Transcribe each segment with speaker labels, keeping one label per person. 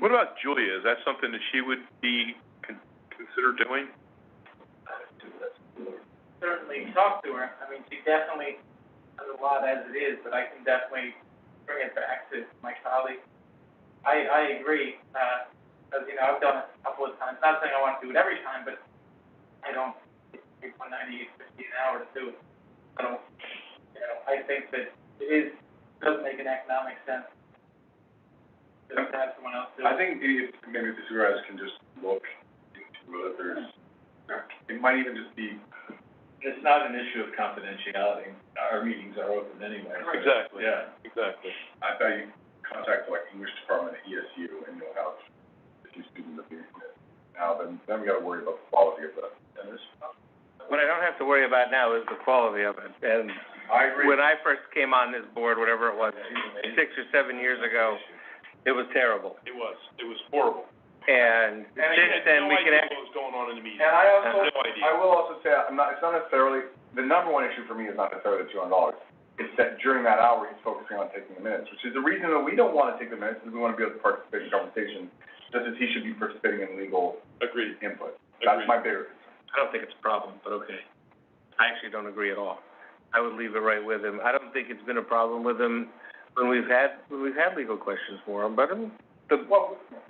Speaker 1: What about Julia? Is that something that she would be con- considered doing?
Speaker 2: certainly talk to her. I mean, she definitely has a lot as it is, but I can definitely bring it back to my colleague. I, I agree, uh, because, you know, I've done it a couple of times. Not saying I want to do it every time, but I don't, it's one ninety-eight fifty an hour to do it. I don't, you know, I think that it is, does make an economic sense to have someone else do it.
Speaker 3: I think if, maybe if the supervisors can just look into whether there's, it might even just be. It's not an issue of confidentiality, our meetings are open anyway. so-
Speaker 1: Exactly.
Speaker 3: Yeah,
Speaker 1: Exactly.
Speaker 3: I thought you contact like English department at ESU and you'll have a few students up here. Now, then, then we gotta worry about the quality of the, and this,
Speaker 4: What I don't have to worry about now is the quality of it. And
Speaker 3: I agree.
Speaker 4: when I first came on this board, whatever it was, six or seven years ago, it was terrible.
Speaker 1: It was, it was horrible.
Speaker 4: And since then, we can act-
Speaker 1: And I had no idea what was going on in the meeting.
Speaker 3: And I
Speaker 1: I
Speaker 3: also,
Speaker 1: had no idea.
Speaker 3: I will also say, I'm not, it's not necessarily, the number one issue for me is not necessarily the two hundred dollars. It's that during that hour, he's focusing on taking the minutes, which is the reason that we don't wanna take the minutes, is we wanna be able to participate in conversation, just as he should be participating in legal
Speaker 1: Agreed,
Speaker 3: input. That's
Speaker 1: agreed.
Speaker 3: my bigger concern.
Speaker 4: I don't think it's a problem, but okay. I actually don't agree at all. I would leave it right with him. I don't think it's been a problem with him when we've had, when we've had legal questions for him, but um, the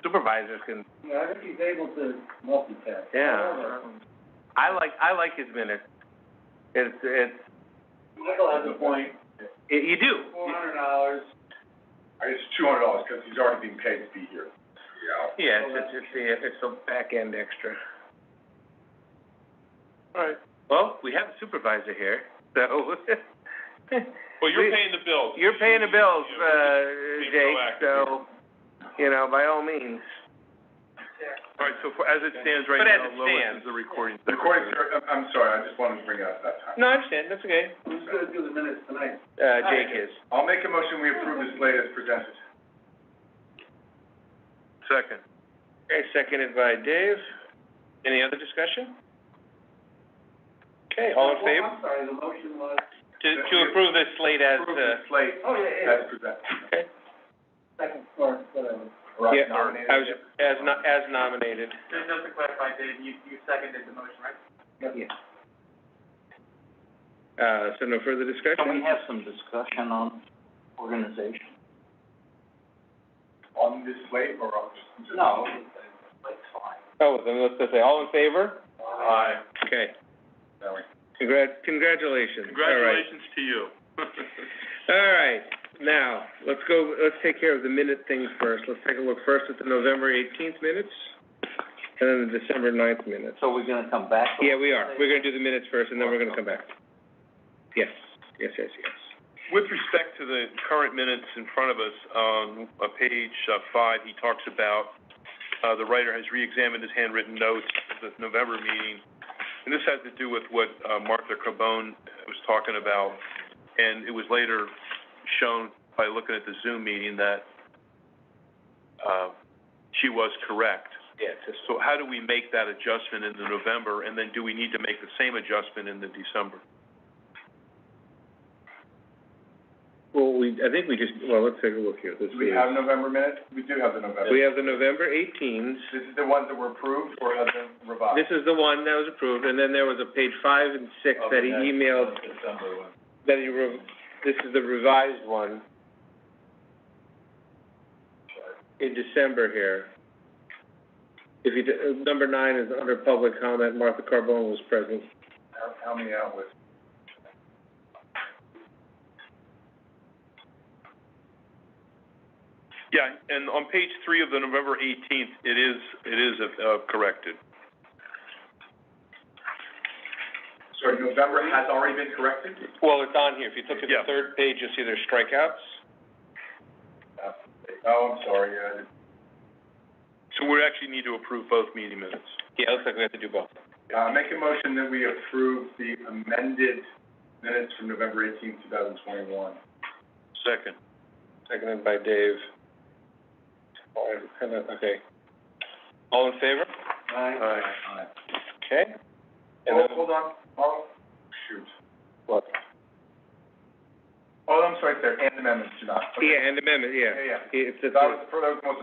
Speaker 4: supervisors can,
Speaker 5: Yeah, I think he's able to multitask.
Speaker 4: yeah. I like, I like his minutes. It's, it's,
Speaker 5: Michael has a point,
Speaker 4: it- you do.
Speaker 5: four hundred dollars,
Speaker 3: It's two hundred dollars, cause he's already being paid to be here. Yeah.
Speaker 4: Yeah, it's, it's, it's a- it's a back end extra.
Speaker 1: All right.
Speaker 4: Well, we have a supervisor here, so
Speaker 1: Well, you're
Speaker 4: We-
Speaker 1: paying the bills.
Speaker 4: you're paying the bills, uh,
Speaker 1: being
Speaker 4: Jake,
Speaker 1: proactive
Speaker 4: so, you know, by all means.
Speaker 1: All right, so for, as it stands right
Speaker 4: But as
Speaker 1: now,
Speaker 4: it
Speaker 1: Lois
Speaker 4: stands-
Speaker 1: is the recording
Speaker 3: The recording, secretary- I'm, I'm sorry, I just wanted to bring it up that time.
Speaker 4: No, I understand, that's okay.
Speaker 5: who's gonna do the minutes tonight?
Speaker 4: Uh, Jake is.
Speaker 3: I'll make a motion, we approve this slate as presented.
Speaker 4: Second. Okay, seconded by Dave. Any other discussion? Okay, all in
Speaker 5: Well,
Speaker 4: favor?
Speaker 5: I'm sorry, the motion was,
Speaker 4: To, to approve this slate as,
Speaker 3: Approve
Speaker 4: uh,
Speaker 3: this slate
Speaker 5: oh, yeah,
Speaker 3: as presented.
Speaker 4: okay.
Speaker 5: second uh, floor, whatever.
Speaker 3: Or
Speaker 4: Yeah,
Speaker 3: nominated.
Speaker 4: I was, as no, as nominated.
Speaker 2: Just, just to clarify, Dave, you, you seconded the motion, right?
Speaker 5: Yeah.
Speaker 4: Uh, so no further discussion?
Speaker 5: have some discussion on organization?
Speaker 3: On this slate or on just? just-
Speaker 5: No, that's fine.
Speaker 4: Oh, then let's just say, all in favor?
Speaker 3: Aye.
Speaker 4: Okay.
Speaker 3: That way.
Speaker 4: Congrat- congratulations.
Speaker 1: Congratulations to you.
Speaker 4: All right, now, let's go, let's take care of the minute things first. Let's take a look first at the November eighteenth minutes, and then the December 9th minutes.
Speaker 5: So we're gonna come back?
Speaker 4: Yeah, we are. We're gonna do the minutes first, and then we're gonna come back. Yes, yes, yes, yes.
Speaker 1: With respect to the current minutes in front of us, on uh, page uh, five, he talks about, uh, the writer has reexamined his handwritten notes of the November meeting. And this has to do with what uh, Martha Carbone was talking about. And it was later shown by looking at the Zoom meeting that, uh, she was correct.
Speaker 4: Yes.
Speaker 1: So how do we make that adjustment in the November, and then do we need to make the same adjustment in the December?
Speaker 4: Well, we, I think we just, well, let's take a look here. This
Speaker 3: Do we
Speaker 4: is-
Speaker 3: have November minutes? We do have the November.
Speaker 4: we have the November eighteenth.
Speaker 3: This is the ones that were approved or have been revised?
Speaker 4: This is the one that was approved, and then there was a page five and six that he emailed,
Speaker 3: December one.
Speaker 4: that he, re- this is the revised one in December here. If you, d- uh, number nine is under public comment, Martha Carbone was present.
Speaker 3: Help, help me out with,
Speaker 1: Yeah, and on page three of the November eighteenth, it is, it is, uh, corrected.
Speaker 3: so November has already been corrected?
Speaker 4: Well, it's on here. If you look at
Speaker 1: Yeah.
Speaker 4: the third page, you'll see there's strikeouts.
Speaker 3: Oh, I'm sorry, yeah, I didn't-
Speaker 1: So we actually need to approve both meeting minutes.
Speaker 4: Yeah, it looks like we have to do both.
Speaker 3: uh, make a motion that we approve the amended minutes from November eighteenth, two thousand twenty-one.
Speaker 1: Second.
Speaker 4: Seconded by Dave. All right, kind of- okay. All in favor?
Speaker 3: Aye. Aye.
Speaker 4: Okay. And
Speaker 3: Oh,
Speaker 4: then,
Speaker 3: hold on, oh, shoot.
Speaker 4: what?
Speaker 3: Oh, I'm sorry, sir, and amendments do not. Okay.
Speaker 4: Yeah, and amendment, yeah.
Speaker 3: Yeah, yeah.
Speaker 4: It's,
Speaker 3: That
Speaker 4: it's,
Speaker 3: was, that was the most